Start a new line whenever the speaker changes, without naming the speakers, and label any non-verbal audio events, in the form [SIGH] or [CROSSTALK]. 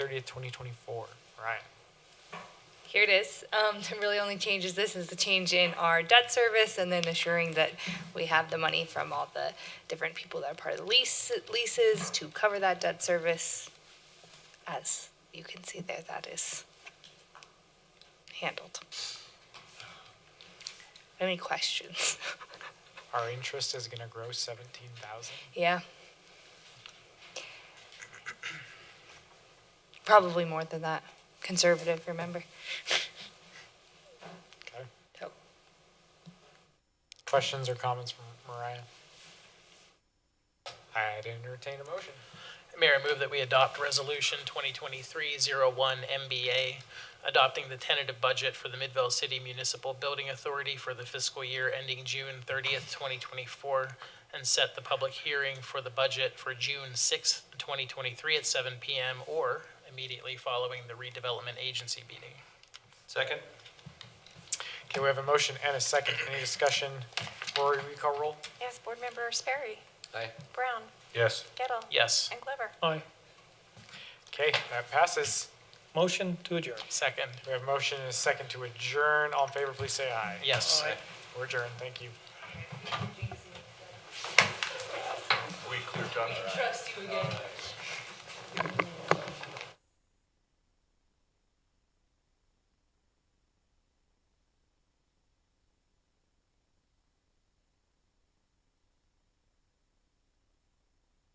thirtieth, twenty twenty-four. Ryan,
Here it is. Um, [LAUGHS] the really only changes this is the change in our debt service and then assuring that we have the money from all the different people that are part of the lease, leases to cover that debt service. As you can see there, that is handled. Any questions? [LAUGHS]
our interest is gonna grow seventeen thousand.
Yeah. Probably more than that. Conservative, remember?
Okay.
So.
Questions or comments from Mariah? I'd entertain a motion.
Mayor, I move that we adopt Resolution 2023-01-MBA, adopting the tentative budget for the Midvale City Municipal Building Authority for the fiscal year ending June 30th, 2024, and set the public hearing for the budget for June 6th, 2023 at 7 PM or immediately following the redevelopment agency meeting.
Second?
Okay, we have a motion and a second. Any discussion? Rory, will you call roll?
Yes, Board Member Sperry,
Aye.
Brown,
Yes.
Gettle.
Yes.
And Glover.
Aye.
Okay, that passes.
Motion to adjourn.
Second.
We have a motion and a second to adjourn. All in favor, please say aye.
Yes.
Aye.
We're adjourned. Thank you.
We cleared up.
Trust you again.